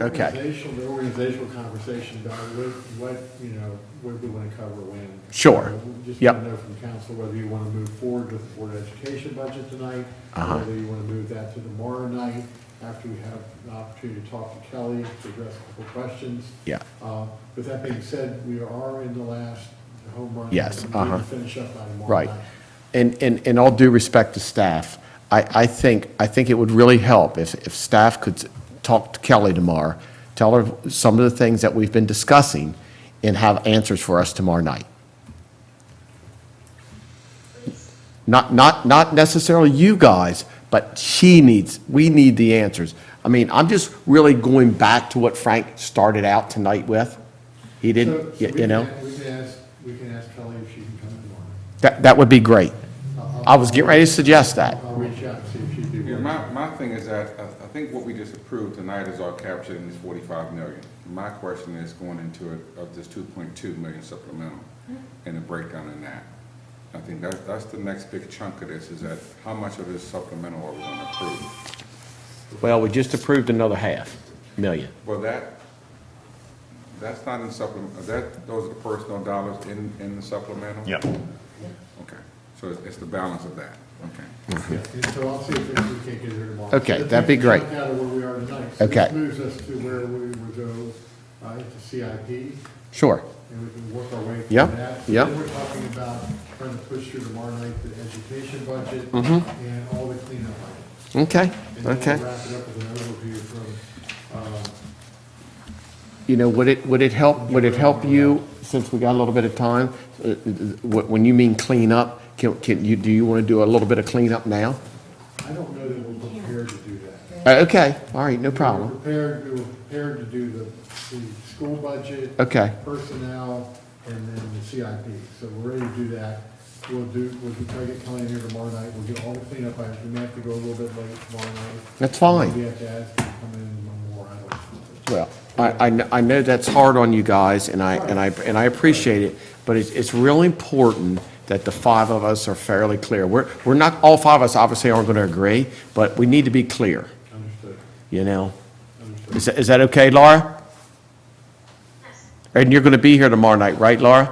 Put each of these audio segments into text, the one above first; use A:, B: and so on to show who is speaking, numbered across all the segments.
A: Okay.
B: Organizational, the organizational conversation about what, what, you know, what we want to cover when.
A: Sure.
B: Uh, we Just
A: Yep.
B: want to know from council whether you want to move forward with the Board of Education budget tonight,
A: Uh-huh.
B: whether you want to move that to tomorrow night, after we have an opportunity to talk to Kelly, to address a couple questions.
A: Yeah.
B: Uh, With that being said, we are in the last home run.
A: Yes,
B: We need to
A: uh-huh.
B: Finish up by tomorrow
A: Right.
B: night.
A: And, and, and all due respect to staff, I, I think, I think it would really help if, if staff could s- talk to Kelly tomorrow, tell her some of the things that we've been discussing, and have answers for us tomorrow night. Not, not, not necessarily you guys, but she needs, we need the answers. I mean, I'm just really going back to what Frank started out tonight with. He
B: So-
A: didn't,
B: so
A: you
B: we
A: you
B: can
A: know?
B: a- We can ask, we can ask Kelly if she can come tomorrow.
A: That, that would be great. I was getting ready to suggest that.
B: I'll reach out and see if she'd be
C: Yeah,
B: willing.
C: my, my thing is that, I, I think what we just approved tonight is all captured in this forty-five million. My question is going into it of this two point two million supplemental and the breakdown in that. I think that's, that's the next big chunk of this, is that how much of this supplemental are we gonna approve?
A: Well, we just approved another half million.
C: Well, that, that's not in supplement, that, those are the personal dollars in, in the supplemental?
D: Yeah.
C: Okay, so it's, it's the balance of that, okay.
B: And so I'll see if we can get her tomorrow.
A: Okay, that'd be great.
B: Check out where we are tonight. So
A: Okay.
B: This moves us to where we would go uh, to CIP, and
A: Sure.
B: we can work our way through
A: Yep,
B: that.
A: yep.
B: Then we're talking about trying to push through tomorrow night the education budget and all the cleanup items.
A: Okay,
B: And then
A: Mm-hmm. okay.
B: we'll wrap it up with an overview from, uh,
A: You know, would it, would it help, would it help you, since we got a little bit of time, uh, uh, wh- when you mean clean up, can, can you, do you want to do a little bit of cleanup now?
B: I don't know that we're prepared to do that.
A: Uh, Okay, all right, no
B: We
A: problem.
B: were prepared, we were prepared to do the, the school budget.
A: Okay.
B: Personnel, and then the CIP, so we're ready to do that. We'll do, we'll try to get Kelly in here tomorrow night, we'll get all the cleanup items, we may have to go a little bit late tomorrow night.
A: That's fine.
B: We have to ask her to come in one more, I don't know.
A: Well, I, I, kn- I know that's hard on you guys, and I, and I, and I appreciate it, but it's, it's really important that the five of us are fairly clear. We're, we're not, all five of us obviously aren't going to agree, but we need to be clear,
B: Understood,
A: you know?
B: understood.
A: Is, that- is that okay, Laura? And you're going to be here tomorrow night, right, Laura?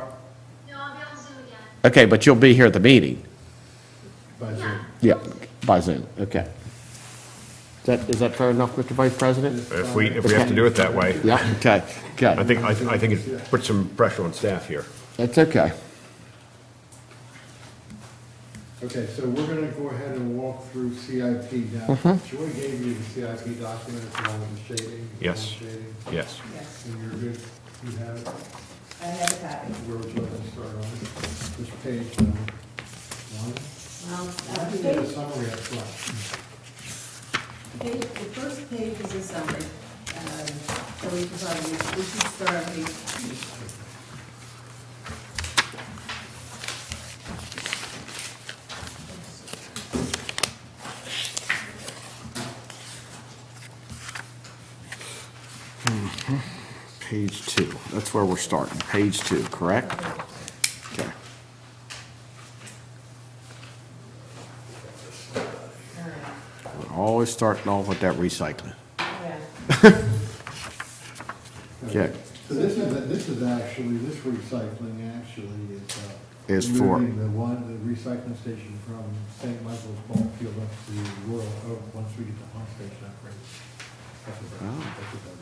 E: No, I'll be on Zoom again.
A: Okay, but you'll be here at the meeting?
B: By Zoom.
A: Yeah, by Zoom, okay. Is that, is that fair enough, Mr. Vice President?
D: If we, if we have to do it that way.
A: Yeah, okay,
D: I
A: okay.
D: think, I think- I think it puts some pressure on staff here.
A: That's okay.
B: Okay, so we're gonna go ahead and walk through CIP now.
A: Mm-hmm.
B: Joy gave you the CIP documents along with the shading.
D: Yes.
B: Shading,
D: Yes.
F: Yes,
B: And you're good, you have it?
F: I have a copy.
B: Where would you like to start on it? Which page, um, one?
F: Um, uh,
B: Give me the
F: page-
B: summary up front.
F: page- The first page is a summary, um, so we can probably, we should start on page two.
A: Page two, that's where we're starting, page two, correct? Okay. We're Always starting off with that recycling.
F: Yeah.
A: Okay.
B: So this is, this is actually, this recycling actually is. uh,
A: Is for-
B: Moving the one, the recycling station from St. Michael's Ball Field up to Royal Oak, once we get the pump station upgraded. That's about it.
A: Oh.
B: That's about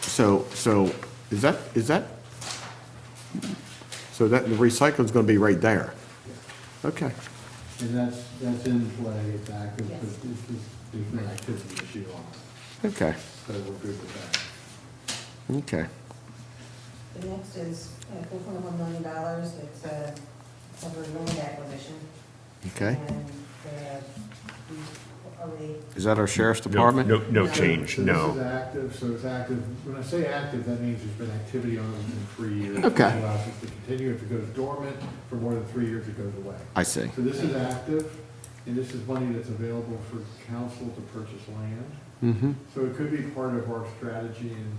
B: it.
A: So, so, is that, is that, so that, the recycling's gonna be right there? Okay,
B: And that's, that's in play, it's active,
F: Yes.
B: but this is, there's no activity issue on it,
A: okay,
B: so we're good with that.
A: okay.
F: The next is uh, four point one million dollars, it's uh, a, cover land acquisition.
A: Okay.
F: And, uh, we already,
A: Is that our sheriff's
D: No-
A: department?
D: No, no change,
B: So This is
D: no.
B: active, so it's active, when I say active, that means there's been activity on it in three years.
A: Okay.
B: It allows us to continue, if it goes dormant for more than three years, it goes away.
A: I see.
B: So this is active, and this is money that's available for council to purchase land.
A: Mm-hmm,
B: So it could be part of our strategy in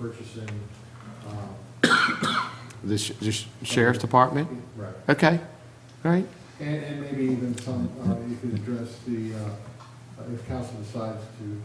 B: purchasing, um.
A: the sh- the sh- sheriff's department?
B: Right.
A: Okay, all right,
B: And, and maybe even some, uh, you could address the, uh, if council decides to